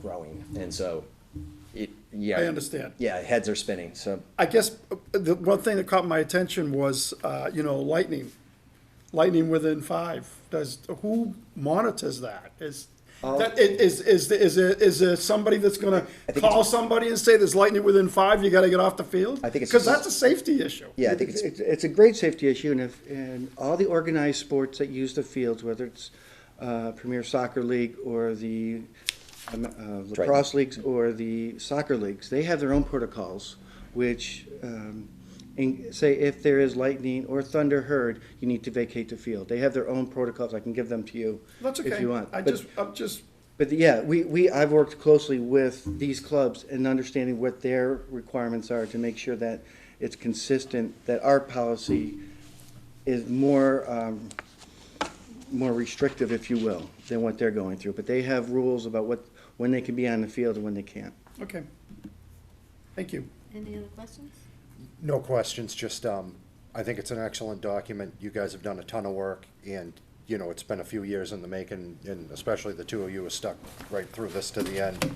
growing, and so it, yeah. I understand. Yeah, heads are spinning, so, I guess uh, the one thing that caught my attention was, uh, you know, lightning, lightning within five. Does, who monitors that? Is, that- i- is, is, is, there- is there somebody that's gonna Um, think call somebody and say there's lightning within five, you gotta get off the field? I think it's- Cause that's a safety issue. yeah, I think It's, it's, it's it's a great safety issue, and if, and all the organized sports that use the fields, whether it's uh, Premier Soccer League or the um, uh, lacrosse leagues or the soccer leagues, they have their own protocols, which um, in- say if there is lightning or thunder heard, you need to vacate the field. They have their own protocols. I can give them to you That's okay. if you want. I But- just, I'm just, but yeah, we, we, I've worked closely with these clubs and understanding what their requirements are to make sure that it's consistent, that our policy is more, um, more restrictive, if you will, than what they're going through. But they have rules about what, when they can be on the field and when they can't. okay. Thank you. Any other questions? No questions, just, um, I think it's an excellent document. You guys have done a ton of work and, you know, it's been a few years in the making and especially the two of you have stuck right through this to the end.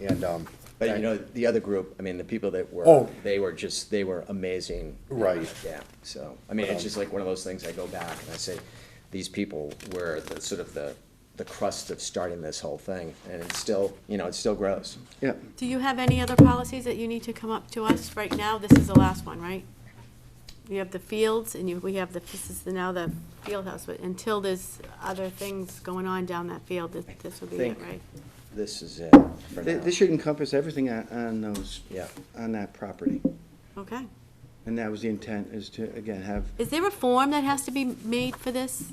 And, um, but you know, the other group, I mean, the people that were, Oh. they were just, they were amazing. Right. Yeah, so, I mean, it's just like one of those things, I go back and I say, these people were the, sort of the, the crust of starting this whole thing, and it still, you know, it still grows. Yeah, Do you have any other policies that you need to come up to us right now? This is the last one, right? You have the fields and you, we have the, this is the- now the field house, but until there's other things going on down that field, this, this would be it, Think- right? This is it for Th- now. this should encompass everything on, on those. Yeah. On that property. Okay. And that was the intent, is to, again, have, Is there a form that has to be made for this?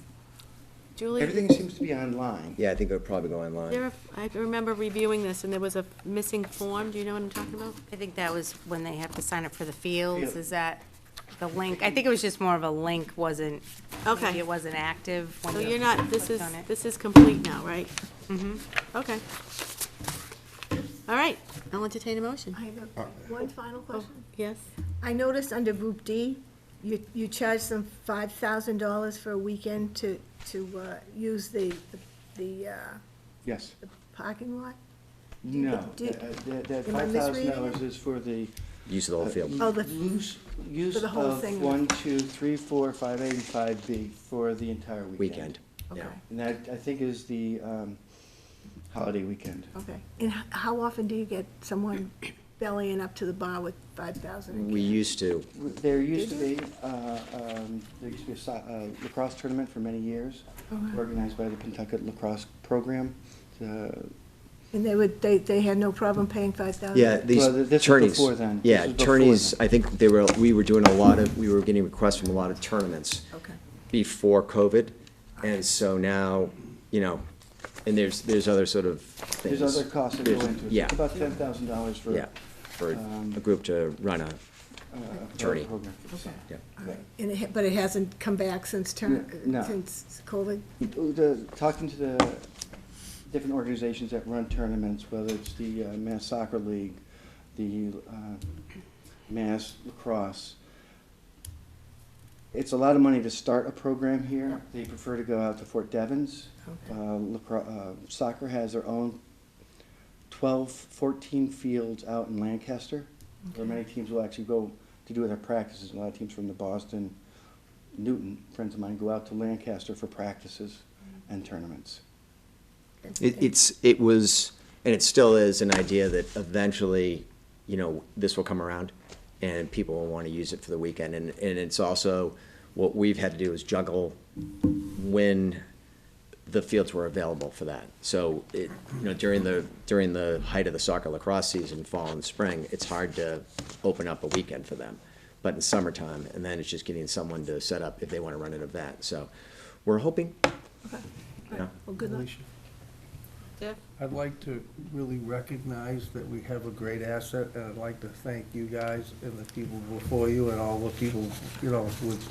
Julie? everything seems to be online. Yeah, I think it would probably go online. There, I remember reviewing this and there was a missing form. Do you know what I'm talking about? I think that was when they have to sign up for the fields, Yeah. is that the link? I think it was just more of a link wasn't, Okay. maybe it wasn't active when So you you're not, this is, clicked on it. this is complete now, right? Mm-hmm. Okay. All right, I'll entertain a motion. I have Uh, a- one final question. Yes? oh. I noticed under Group D, you, you charge them five thousand dollars for a weekend to, to, uh, use the, the, uh, Yes. the parking lot? No, Do- that- that, that am I five thousand misreading dollars is for the. Use of the whole field. Oh, the- Uh, Use, use the whole of thing. one, two, three, four, five, eight, and five B for the entire weekend. Weekend, yeah. Okay. And that, I think, is the, um, holiday weekend. Okay. And h- how often do you get someone bellying up to the bar with five thousand? We used to, There used to be, uh, um, there used to be a so- uh, lacrosse tournament for many years, Oh, organized by the Pentucket Lacrosse Program. Uh, And they would, they, they had no problem paying five thousand? yeah, these Well, this was attorneys. before then. Yeah, This was before attorneys, then. I think they were, we were doing a lot of, we were getting requests from a lot of tournaments Okay. before COVID. And so now, you know, and there's, there's other sort of things. There's other costs that go There's- into it. Yeah, It's About ten thousand dollars for. yeah, for um, a group to run a, uh, a Attorney. program. Okay. yeah. All right. And it, ha- but it hasn't come back since term, No. since COVID? The, talking to the different organizations that run tournaments, whether it's the uh, Mass Soccer League, the uh, Mass Lacrosse, it's a lot of money to start a program here. They prefer to go out to Fort Devens. Okay. Uh, lacro- uh, Soccer has their own 12, 14 fields out in Lancaster, where many teams will actually go to do their practices. A lot of teams from the Boston, Newton, friends of mine, go out to Lancaster for practices and tournaments. It, it's, it was, and it still is an idea that eventually, you know, this will come around and people will want to use it for the weekend. And, and it's also, what we've had to do is juggle when the fields were available for that. So it, you know, during the, during the height of the soccer lacrosse season, fall and spring, it's hard to open up a weekend for them. But in summertime, and then it's just getting someone to set up if they want to run an event. So we're hoping, you know. Well, good luck. Alicia, Jeff? I'd like to really recognize that we have a great asset, and I'd like to thank you guys and the people before you and all the people, you know, with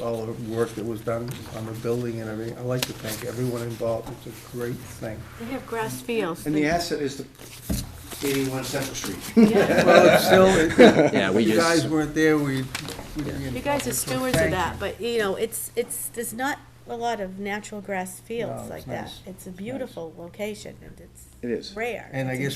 all the work that was done on the building and everything. I'd like to thank everyone involved. It's a great thing. They have grass fields. And the asset is the 81 Central Street. Yeah. Well, it's still, it- Yeah, we if you just- guys weren't there, we. we'd be in You guys are trouble, so stewards of thank that, you. but you know, it's, it's, there's not a lot of natural grass No, fields it's like that. nice. It's a beautiful location and it's It is. rare. And I It's a guess